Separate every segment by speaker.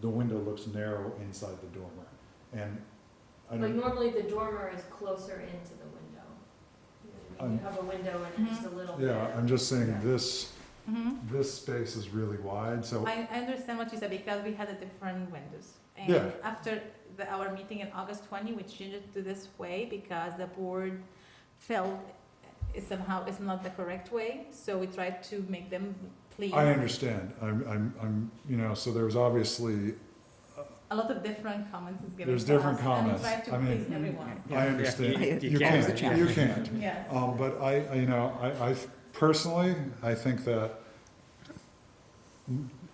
Speaker 1: the window looks narrow inside the dormer. And I
Speaker 2: But
Speaker 1: don't,
Speaker 2: normally the dormer is closer into the window. When
Speaker 1: Um,
Speaker 2: You have a window
Speaker 3: Mm-hmm.
Speaker 2: and it's just a little bit.
Speaker 1: yeah, I'm just saying
Speaker 2: Yeah.
Speaker 1: this,
Speaker 3: Mhm.
Speaker 1: this space is really wide, so,
Speaker 3: I, I understand what you said because we had a different windows. And
Speaker 1: Yeah.
Speaker 3: after the, our meeting in August 20, we changed it to this way because the board felt it somehow it's not the correct way. So we tried to make them please
Speaker 1: I understand, I'm, I'm, I'm, you know, so there's obviously,
Speaker 3: a lot of different comments is given.
Speaker 1: There's
Speaker 3: to us,
Speaker 1: different comments.
Speaker 3: And we tried to
Speaker 1: I mean- mm-hmm.
Speaker 3: please everyone.
Speaker 1: I understand.
Speaker 4: Yeah,
Speaker 1: You
Speaker 4: can't.
Speaker 1: can't, you can't.
Speaker 3: Yes.
Speaker 1: Um, but I, I- you know, I, I personally, I think that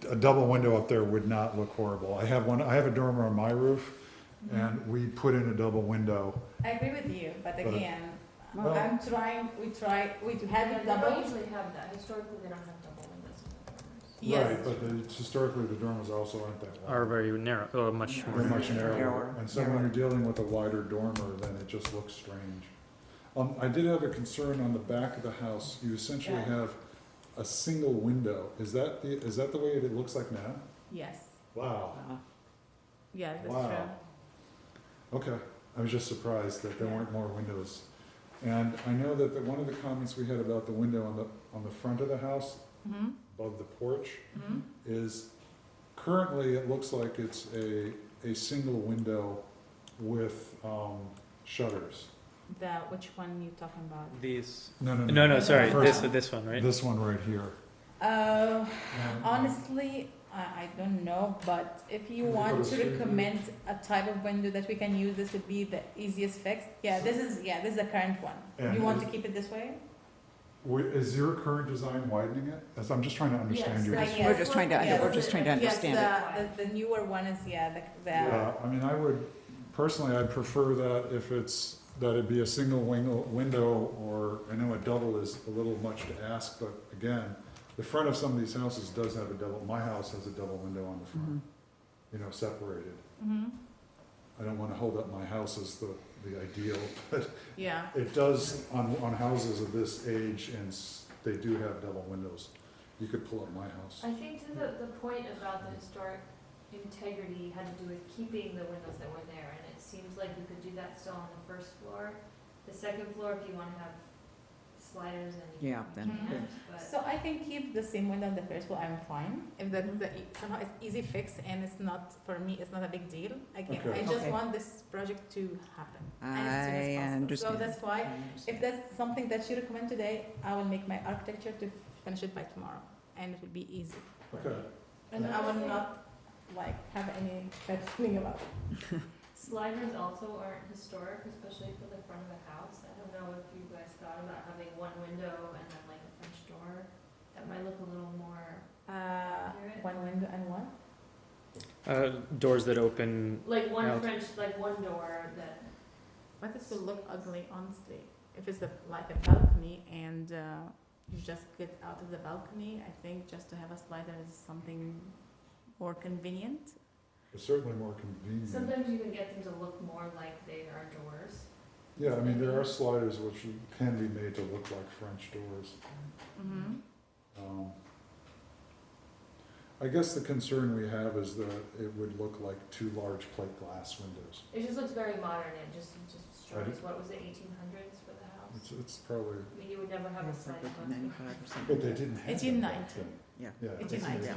Speaker 1: a double window up there would not look horrible. I have one, I have a dormer on my roof
Speaker 3: Mm-hmm.
Speaker 1: and we put in a double window.
Speaker 3: I agree with you, but
Speaker 1: But- uh,
Speaker 3: again,
Speaker 1: Well-
Speaker 3: I'm trying. We try. We
Speaker 2: Yeah,
Speaker 3: had
Speaker 2: They
Speaker 3: a double.
Speaker 2: don't usually have that, historically they don't have double windows in the dormers.
Speaker 3: Yes.
Speaker 1: Right, But the- historically, the dormers also aren't that
Speaker 4: Are
Speaker 1: wide.
Speaker 4: very narrow, or much
Speaker 1: They're
Speaker 4: more.
Speaker 1: much narrower.
Speaker 5: Narrower,
Speaker 1: And so when
Speaker 5: narrower.
Speaker 1: you're dealing with a wider dormer, then it just looks strange. Um, I did have a concern on the back of the house. You essentially
Speaker 3: Yeah.
Speaker 1: have a single window. Is that the, is that the way it looks like now?
Speaker 3: Yes.
Speaker 1: Wow.
Speaker 3: Uh-huh. Yeah, that's
Speaker 1: Wow.
Speaker 3: true.
Speaker 1: Okay, I was just surprised that there weren't more windows. And I know that the, one of the comments we had about the window on the, on the front of the house,
Speaker 3: hmm
Speaker 1: above the porch,
Speaker 3: hmm
Speaker 1: is currently it looks like it's a, a single window with, um, shutters.
Speaker 3: The which one you talking about?
Speaker 4: These,
Speaker 1: No, no,
Speaker 4: no,
Speaker 1: no.
Speaker 4: no, sorry, this,
Speaker 1: First-
Speaker 4: this one, right?
Speaker 1: This one right here.
Speaker 3: Uh,
Speaker 1: And-
Speaker 3: honestly, I, I don't know, but if you
Speaker 1: Can we go
Speaker 3: want
Speaker 1: to
Speaker 3: to
Speaker 1: street
Speaker 3: recommend a type of window that we can use, this would be the easiest fix. Yeah, this is, yeah, this is the current one.
Speaker 1: And
Speaker 3: You want
Speaker 1: is-
Speaker 3: to keep it this way?
Speaker 1: Wi- Is your current design widening it? As- I'm just trying to understand your.
Speaker 3: Yes,
Speaker 1: design.
Speaker 3: I-
Speaker 5: We're just trying to, under- we're just trying to
Speaker 3: Yes, uh,
Speaker 5: understand it.
Speaker 3: the, the, the newer one is, yeah, the, the,
Speaker 1: Yeah, I mean, I would, personally, I'd prefer that if it's, that it be a single wing, window, or, I know a double is a little much to ask, but again, the front of some of these houses does have a double, my house has a double window on the front,
Speaker 3: Mm-hmm.
Speaker 5: Mhm.
Speaker 1: you know, separated.
Speaker 3: hmm
Speaker 1: I don't wanna hold up my house as the, the ideal, but
Speaker 3: yeah.
Speaker 1: it does, on, on houses of this age, and s- they do have double windows. You could pull up my house.
Speaker 2: I think to the, the point about the historic integrity had to do with keeping the windows that were there, and it seems like you could do that still on the first floor. The second floor, if you wanna have sliders and you
Speaker 5: Yeah, then-
Speaker 2: can't, but.
Speaker 3: So I can keep the same window on the first one, I'm fine. If that's the, somehow it's easy fix and it's not, for me, it's not a big deal. Again,
Speaker 1: Okay.
Speaker 3: I just
Speaker 5: Okay.
Speaker 3: want this project to happen as soon as
Speaker 5: I
Speaker 3: possible. So
Speaker 5: understand.
Speaker 3: that's why If that's something that you recommend today, I will make my architecture to finish it by tomorrow, and it will be easy.
Speaker 1: Okay,
Speaker 3: And I will not, like, have any bad feeling about it.
Speaker 2: Sliders also aren't historic, especially for the front of the house. I don't know if you guys thought about having one window and then like a French door. That might look a little more
Speaker 3: Uh,
Speaker 2: accurate.
Speaker 3: one window and one?
Speaker 4: Uh, doors that open,
Speaker 2: Like one
Speaker 4: Out.
Speaker 2: French, like one door that,
Speaker 3: But this will look ugly, honestly. If it's a, like a balcony and, uh, you just get out of the balcony, I think just to have a slider is something more convenient.
Speaker 1: it's certainly more convenient.
Speaker 2: sometimes you can get them to look more like they are doors.
Speaker 1: Yeah, I mean, there are sliders which can be made to look like French doors.
Speaker 3: Mm-hmm.
Speaker 1: Um, I guess the concern we have is that it would look like two large plate glass windows.
Speaker 2: It just looks very modern. It just, it just
Speaker 1: I
Speaker 2: strikes, what was it, eighteen hundreds for the house?
Speaker 1: It's, it's probably,
Speaker 2: I mean, you would never have a sliding glass.
Speaker 5: Ninety-five percent.
Speaker 1: but they didn't have.
Speaker 3: It's
Speaker 1: them back
Speaker 3: united.
Speaker 1: then.
Speaker 5: Yeah.
Speaker 1: Yeah.
Speaker 3: It's
Speaker 1: in
Speaker 3: united.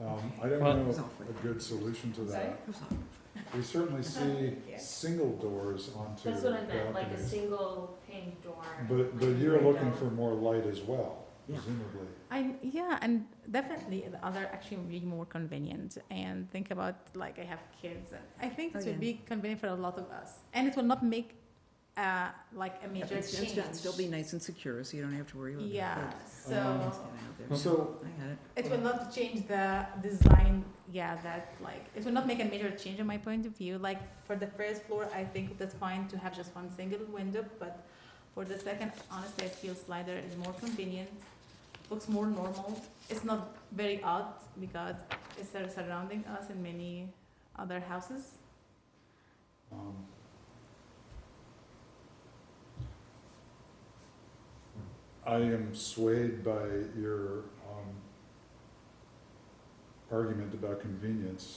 Speaker 1: Um, I don't
Speaker 4: Well-
Speaker 1: know a good solution to that. We certainly see
Speaker 3: Yeah.
Speaker 1: single doors onto
Speaker 2: That's what I meant, like a
Speaker 1: balconies.
Speaker 2: single pane door.
Speaker 1: But, but
Speaker 2: like a
Speaker 1: you're looking
Speaker 2: window.
Speaker 1: for more light as well,
Speaker 5: Yeah.
Speaker 1: presumably.
Speaker 3: I yeah, and definitely the other actually would be more convenient. And think about like I have kids. I think
Speaker 5: Oh,
Speaker 3: it would
Speaker 5: yeah.
Speaker 3: be convenient for a lot of us, and it will not make uh, like a major
Speaker 5: It's
Speaker 3: change.
Speaker 5: it's still be nice and secure, so you don't have to worry about it.
Speaker 3: yeah,
Speaker 1: Um,
Speaker 3: so
Speaker 1: So,
Speaker 5: I got it.
Speaker 3: it will not change the design. Yeah, that like it will not make a major change in my point of view. Like for the first floor, I think that's fine to have just one single window, but for the second, honestly, I feel slider is more convenient, looks more normal. It's not very odd because it's sur- surrounding us in many other houses.
Speaker 1: Um, I am swayed by your um, argument about convenience,